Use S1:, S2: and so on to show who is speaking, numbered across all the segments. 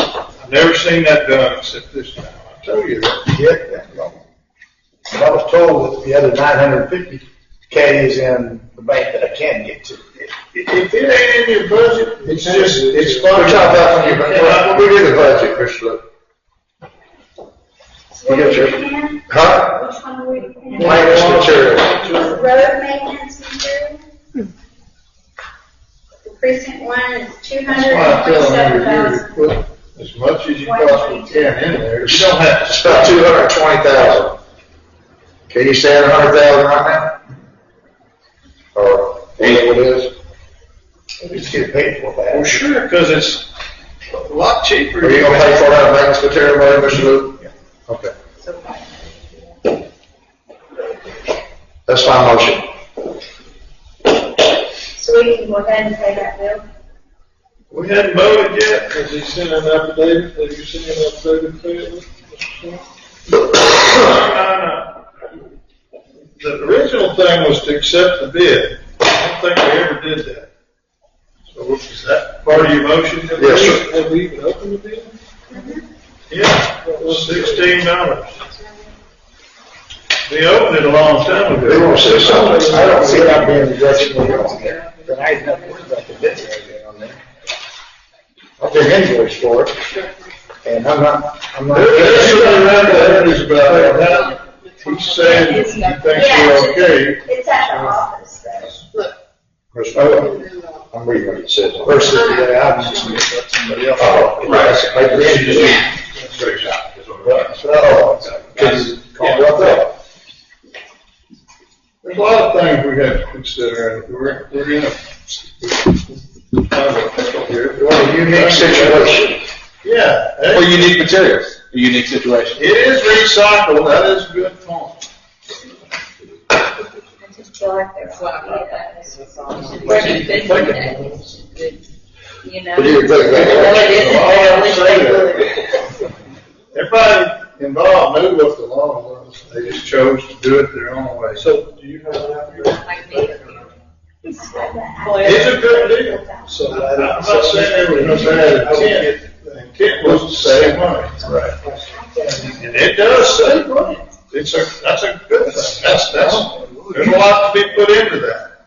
S1: I've never seen that done except this time.
S2: I told you that, you had that loan. But I was told that the other nine hundred fifty K is in the bank that I can get to.
S1: If if it ain't in your budget, it's just, it's
S2: We're talking
S1: fun.
S2: about when you, when we do the budget, Mr. Look.
S3: What
S2: You got
S3: are
S2: your-
S3: we in?
S2: Huh?
S3: Which one are we in?
S2: Minus material.
S3: Road maintenance material? Precinct one is two hundred and twenty-seven thousand.
S2: put
S1: As much as you possibly can in there.
S2: You don't have, it's about two hundred and twenty thousand. Can you stand a hundred thousand right now? Or, ain't what it is? It's getting paid for
S1: Well,
S2: that.
S1: sure, because it's a lot cheaper.
S2: Are you gonna pay for that maintenance material, money, Mr. Luke? Okay. That's my motion.
S3: So we can go ahead and pay that bill.
S1: We hadn't voted yet, because he sent an affidavit, have you sent an affidavit to him? No, no. The original thing was to accept the bid, I don't think we ever did that. So what was that part of your motion?
S2: Yes, sir.
S4: Have we even opened the bid?
S1: Yeah, sixteen dollars. We opened it a long time ago.
S2: They won't say something. I don't see that being the direction we're going there. Then I have nothing about the bid or anything on there. I'll take invoice for it. And I'm not, I'm not.
S1: There's two other affidavits about that. He's saying he thinks we're okay.
S3: It's at the office, though.
S2: Chris, oh, I'm reading what it says. Versus the items. Oh, right, like the engine. Straight shot. So, because, what the?
S1: There's a lot of things we have to consider, and we're, we're in a.
S2: What a unique situation.
S1: Yeah,
S5: Or
S1: it
S5: unique materials, a unique situation.
S1: it is recycled, that is a good point.
S3: I just feel like there's a
S6: That's what I
S3: lot
S6: thought that
S3: of that.
S6: was was on. You know?
S2: But you think that-
S6: Well, it isn't, but I wish they would.
S1: Everybody involved knew what the law was, they just chose to do it their own way.
S4: So do you have an affidavit?
S6: Like me.
S3: It's like that.
S1: It's a good deal.
S4: So
S1: I'm
S4: that-
S1: not saying there was no bad intent, the intent was to save money. Right. And it does save money. It's a, that's a good thing. That's, that's, there's a lot to be put into that.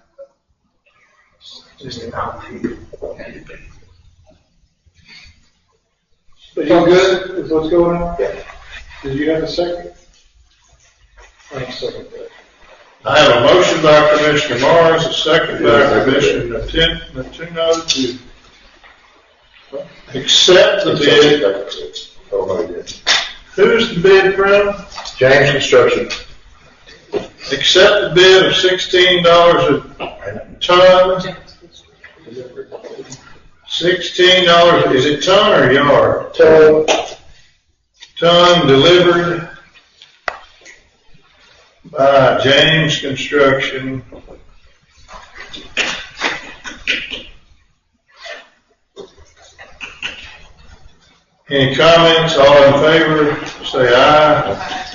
S4: But you good with what's going on? Yeah. Did you have a second? I'm second.
S1: I have a motion by Commissioner Morris, a second by Commissioner Natin- Natino to accept the bid.
S2: Oh, my goodness.
S1: Who's the bid from?
S2: James Construction.
S1: Accept the bid of sixteen dollars a ton, sixteen dollars, is it ton or yard?
S2: So,
S1: Ton delivered by James Construction. Any comments, all in favor, say aye.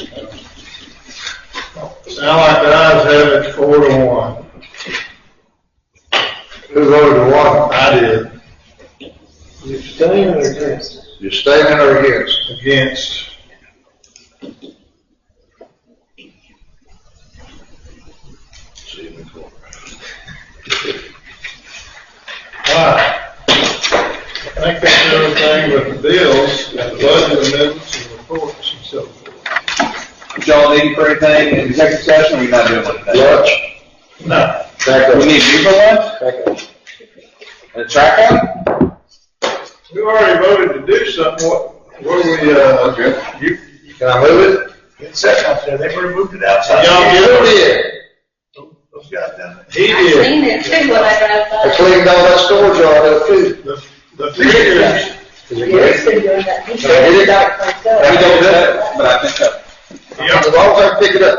S1: Sound like the ayes have it, four to one.
S2: who voted one?
S1: I did,
S4: You staying or against?
S2: Your statement or against?
S1: against. Alright. I think that's everything with the bills, and the budget amendments, and reports, and so forth.
S5: If y'all need for anything in executive session, we're not doing like that.
S2: Lunch?
S1: No.
S2: Back
S5: We need you for lunch?
S2: up.
S5: And a track out?
S1: We already voted to do something, what, what we, uh, you,
S2: Can I move it?
S1: y'all get it? He
S6: I
S1: did.
S6: seen it too when I drove by.
S2: I cleaned all that storage out of that food.
S1: The, the figures,
S2: Is it great?
S5: We don't do that, but I think that.
S1: y'all
S2: As long as I pick it up.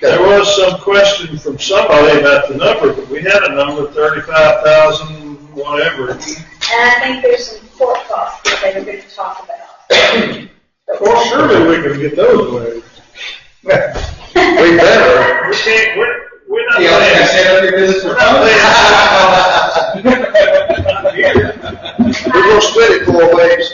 S1: There was some question from somebody about the number, but we had a number, thirty-five thousand, whatever.
S3: And I think there's some court costs that they were gonna talk about.
S1: Well, surely we can get those waived.
S2: We better.
S1: We can't, we're, we're not
S5: Yeah, like I
S1: paying,
S5: said, if you're business
S1: we're
S5: for
S1: not paying. Not here.
S2: We're gonna split it four ways.